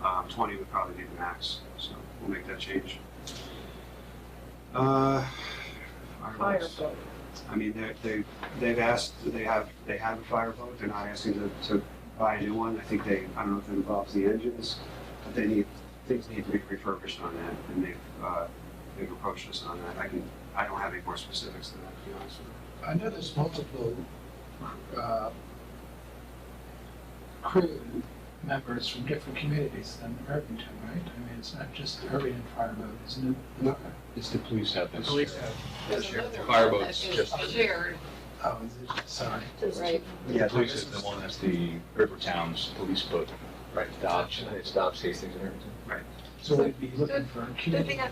about Um, twenty would probably be the max, so we'll make that change. Uh, Fire fireworks. boat. I mean, they, they, they've asked, they have, they have a fireboat, they're not asking to, to buy a new one, I think they, I don't know if it involves the engines, but they need, things need to be refurbished on that, and they've, uh, they've approached us on that, I can, I don't have any more specifics than that, to be honest with you. I know there's multiple, uh, crew members from different communities in Irvington, right? I mean, it's not just the Irvington Fire Boat, isn't it? No. It's the police have The this. police have, There's Sure. another Fire one that boats, is just- Shared, oh, is it, sorry. right? The police is the one that's the River Towns police boat. Right. Stops, it stops Hastings and everything. So we'd be looking for a The community. thing I-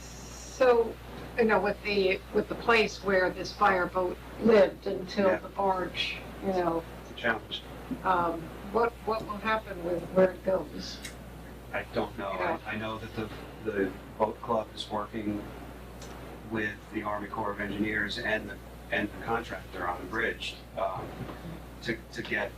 So, you know, with the, with the place where this fireboat lived until Yeah. the barge, you know, The challenge, um, what, what will happen with where it goes? I don't know, I, I know that the, the boat club is working with the Army Corps of Engineers and the, and the contractor on the bridge, um, to, to get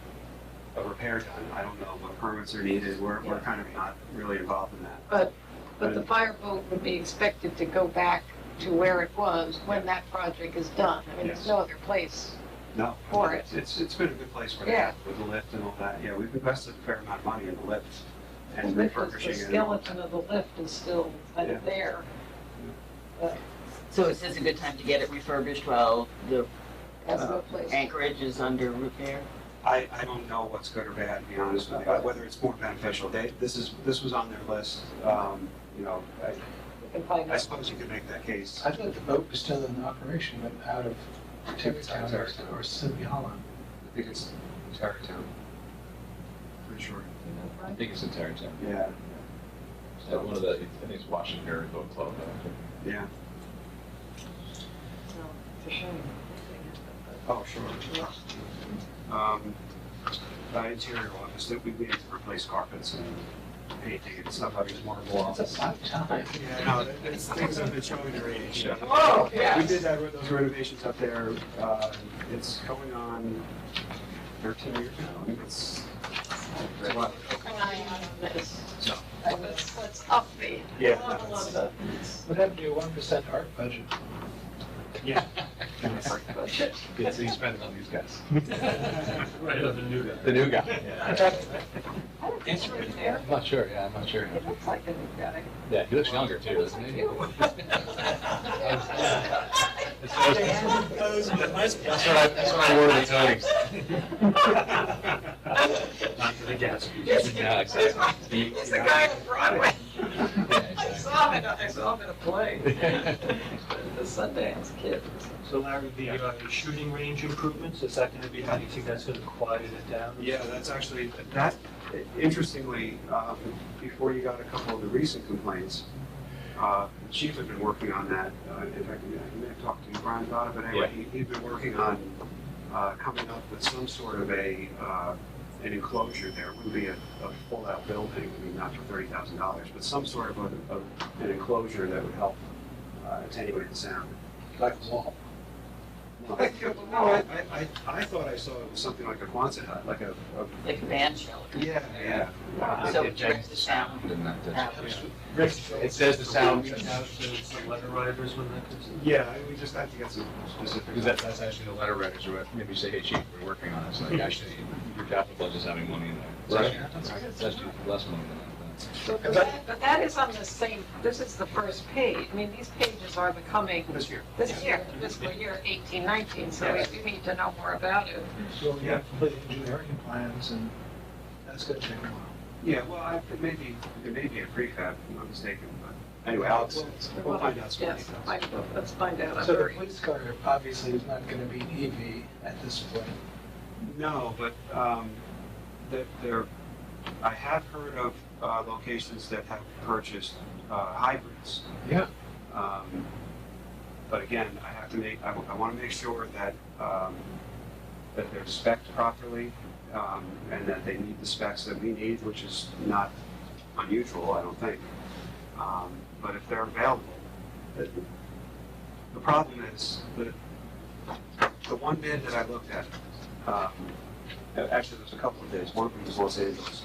a repair done, I don't know what permits are needed, we're, we're kind of not really involved in that. But the fireboat would be expected to go back to where it was when that project is done. I mean, there's no other place. No. For it. It's, it's been a good place for that, with the lift and all that, yeah, we've invested a fair amount of money in the lift The and lift is- refurbishing The it. skeleton of the lift is still kind of there. So is this a good time to get it refurbished while the uh, That's Uh, no place. anchorage is under repair? I, I don't know what's good or bad, to be honest with you, whether it's more beneficial, they, this is, this was on their list, um, you know, I, We can find I out. suppose you could make that case. I thought the boat was still in operation, but out of Tarrytown or, or Sylvia Hollow. I think it's Tarrytown. Pretty sure. I think it's in Tarrytown. Yeah, Is that one of the, I think it's Washington Area Boat Club. yeah, So, It's a shame. oh, sure. Um, uh, interior office, that we need to replace carpets and painting and stuff, I mean, it's more involved. That's a lot of time. Yeah, no, that- that's things I've been showing the radiation. Oh, We did that, with those renovations up there, uh, it's going on thirteen years now, I mean, it's. it's a lot. Keep an eye on Yes. So, What's, what's up there? Yeah. Not a lot of it. What happened to your one percent art budget? Gets expended on these guys. Right, of the new guy. The new guy. I don't think it's right there. I'm not sure, yeah, I'm not sure. It looks like a new guy. Yeah, he looks younger too, doesn't he? That's what I- that's what I wore the times. Not for the gas. Yeah, exactly. It's the guy on Broadway. I Yeah, saw him, in a- I saw him in a play, exactly. the Sundance Kid. So Larry, the uh, shooting range improvements, is that gonna be, how do you think that's gonna quiet it down? Yeah, that's actually, that, interestingly, um, before you got a couple of the recent complaints, uh, the chief had been working on that, uh, in fact, I may have talked to Brian about it, but anyway, he, he'd been working on, uh, coming up with some sort of a, uh, an enclosure there, It wouldn't be a, a full-out building, I mean, not for thirty thousand dollars, but some sort of a, of an enclosure that would help uh, attenuate the sound. Like a wall. No, I, I, I thought I saw it was something like a Quonset hut, like a, a, Like a band shelter? yeah, yeah. It- So it it changes brings the sound and that does- out. It says the sound. Reach out to the letter writers when that comes in? Yeah, we just have to get some Because specific. that, that's actually the letter writers, or maybe say, hey, chief, we're working on this, like, actually, your capital budget's having money in there. Right. It's actually- It's actually less money than But that- but that is on the same, this is the first page. I mean, these pages are becoming, This year. this year, fiscal year eighteen nineteen, so we do need to know more about it. So we have complete engineering plans and that's gonna take a while. Yeah, well, I, it may be, it may be a prefab, if I'm not mistaken, but anyway, Alex, we'll find out some Yes, details. I- let's find out. I'm So the very- police car obviously is not gonna be an EV at this point. No, but, um, that there, I have heard of, uh, locations that have purchased, uh, hybrids. Yeah. Um, but again, I have to make, I, I wanna make sure that, um, that they're spec'd properly, um, and that they meet the specs that we need, which is not unusual, I don't think. Um, but if they're available, the, the problem is that the one bid that I looked at, um, actually, there's a couple of bids, one of them was Los Angeles,